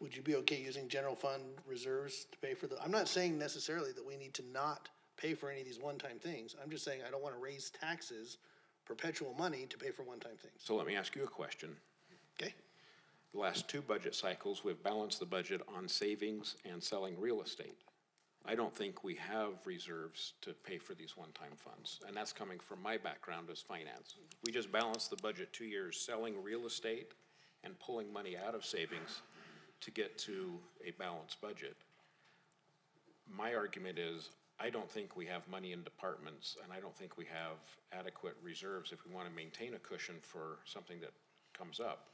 would you be okay using general fund reserves to pay for the, I'm not saying necessarily that we need to not pay for any of these one-time things. I'm just saying I don't wanna raise taxes, perpetual money to pay for one-time things, So let me ask you a question. okay? The last two budget cycles, we've balanced the budget on savings and selling real estate. I don't think we have reserves to pay for these one-time funds, and that's coming from my background as finance. We just balanced the budget two years, selling real estate and pulling money out of savings to get to a balanced budget. My argument is, I don't think we have money in departments, and I don't think we have adequate reserves if we want to maintain a cushion for something that comes up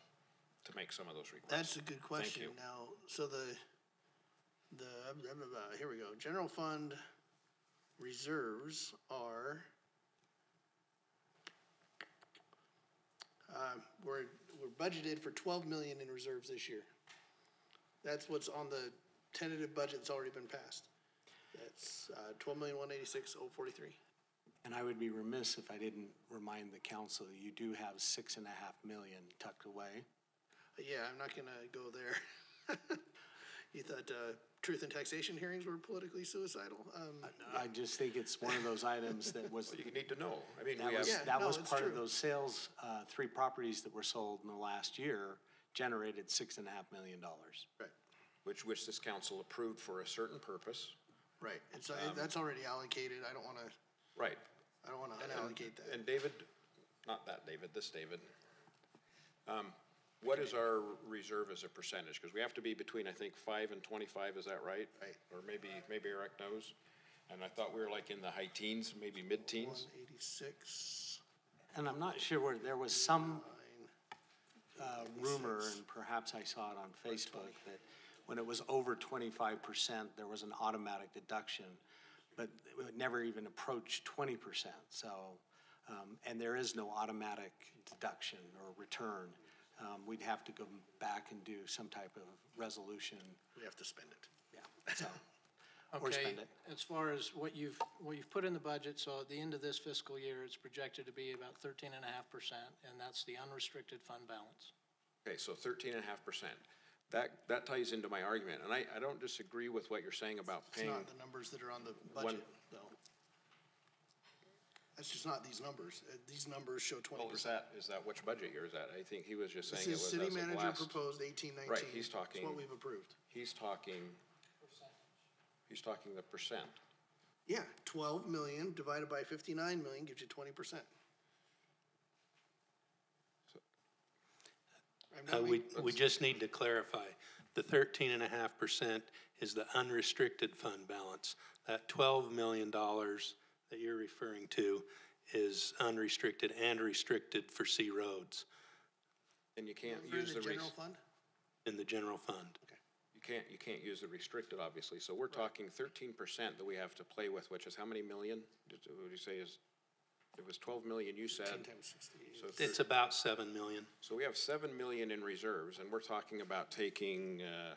to make some of those requests. That's a good question. you. Now, so the, the, blah, blah, blah, here we go. General fund reserves are, uh, we're, we're budgeted for twelve million in reserves this year. That's what's on the tentative budget that's already been passed. That's, uh, twelve million, one eighty-six, oh forty-three. And I would be remiss if I didn't remind the council, that you do have six and a half million tucked away. Yeah, I'm not gonna go there. You thought, uh, truth and taxation hearings were politically suicidal? Um, I just think it's one of those items that was, You need to know. I mean, that we have, was, Yeah, that no, was it's part of true. those sales, uh, three properties that were sold in the last year generated six and a half million dollars. right. which, which this council approved for a certain purpose. Right, and so Um, that's already allocated, I don't wanna, Right. I don't wanna unallocate that. And David, not that David, this David. Um, What is our reserve as a percentage? Because we have to be between, I think, five and twenty-five, is that right? Right. Or maybe, maybe Eric knows. And I thought we were like in the high teens, maybe mid-teens. One eighty-six, And I'm not sure where, there was some nine, uh, rumor, and perhaps I saw it on Facebook, that when it was over twenty-five percent, there was an automatic deduction, but it never even approached twenty percent, so, um, and there is no automatic deduction or return. Um, We'd have to go back and do some type of resolution, we have to spend it. yeah, so, or Okay, spend it. as far as what you've, what you've put in the budget, so at the end of this fiscal year, it's projected to be about thirteen and a half percent, and that's the unrestricted fund balance. Okay, so thirteen and a half percent. That, that ties into my argument, and I, I don't disagree with what you're saying about It's paying. not the numbers that are on the budget, though. That's just not these numbers, uh, these numbers show twenty Well, is percent. that, is that which budget year is that? I think he was just This saying it is was city as of manager last. proposed eighteen nineteen. Right, he's It's talking- what we've approved. He's talking, he's talking the percent. Yeah, twelve million divided by fifty-nine million gives you twenty percent. Uh, we, we just need to clarify, the thirteen and a half percent is the unrestricted fund balance. That twelve million dollars that you're referring to is unrestricted and restricted for C roads And you can't For use the, the res- general fund? in the general fund. you can't, you can't use the restricted, obviously. So we're talking thirteen percent that we have to play with, which is how many million? Did, would you say is, it was twelve million you said? Ten times sixty-eight. So It's thir- about seven million. So we have seven million in reserves, and we're talking about taking, uh,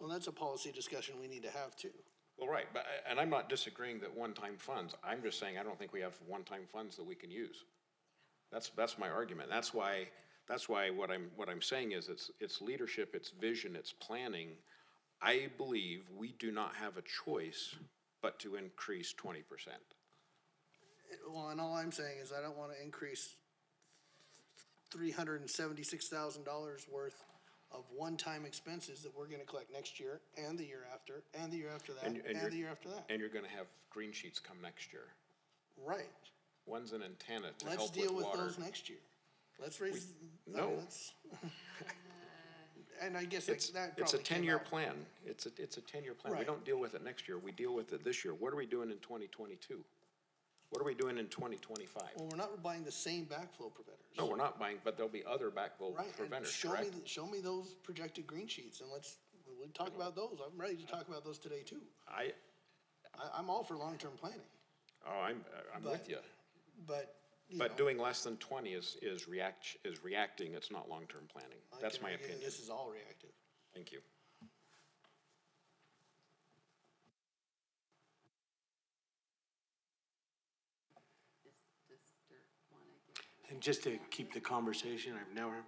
Well, that's a policy discussion we need to have too. Well, right, but, uh, and I'm not disagreeing that one-time funds, I'm just saying I don't think we have one-time funds that we can use. That's, that's my argument, that's why, that's why what I'm, what I'm saying is it's, it's leadership, it's vision, it's planning. I believe we do not have a choice but to increase twenty percent. Well, and all I'm saying is I don't wanna increase three hundred and seventy-six thousand dollars worth of one-time expenses that we're gonna collect next year and the year after, and the year after that, And- and you're- and the year after that. And you're gonna have green sheets come next year. Right. One's an antenna to Let's help with deal with water. those next year. Let's raise, I mean, no. let's. And I guess like It's, that it's probably a came ten-year out- plan, it's a, it's a ten-year plan, we Right. don't deal with it next year, we deal with it this year, what are we doing in twenty twenty-two? What are we doing in twenty twenty-five? Well, we're not buying the same backflow preventers. No, we're not buying, but there'll be other backflow Right, and preventers, show me, correct? th- show me those projected green sheets and let's, we'll talk Mm-hmm. about those. I'm ready to talk about those today too. I, I, I'm all for long-term planning, oh, I'm, I'm with But- you, but, you know. but doing less than twenty is, is react, is reacting, it's not long-term planning, I that's can my argue that opinion, This is all reactive. thank you. And just to keep the conversation, I've never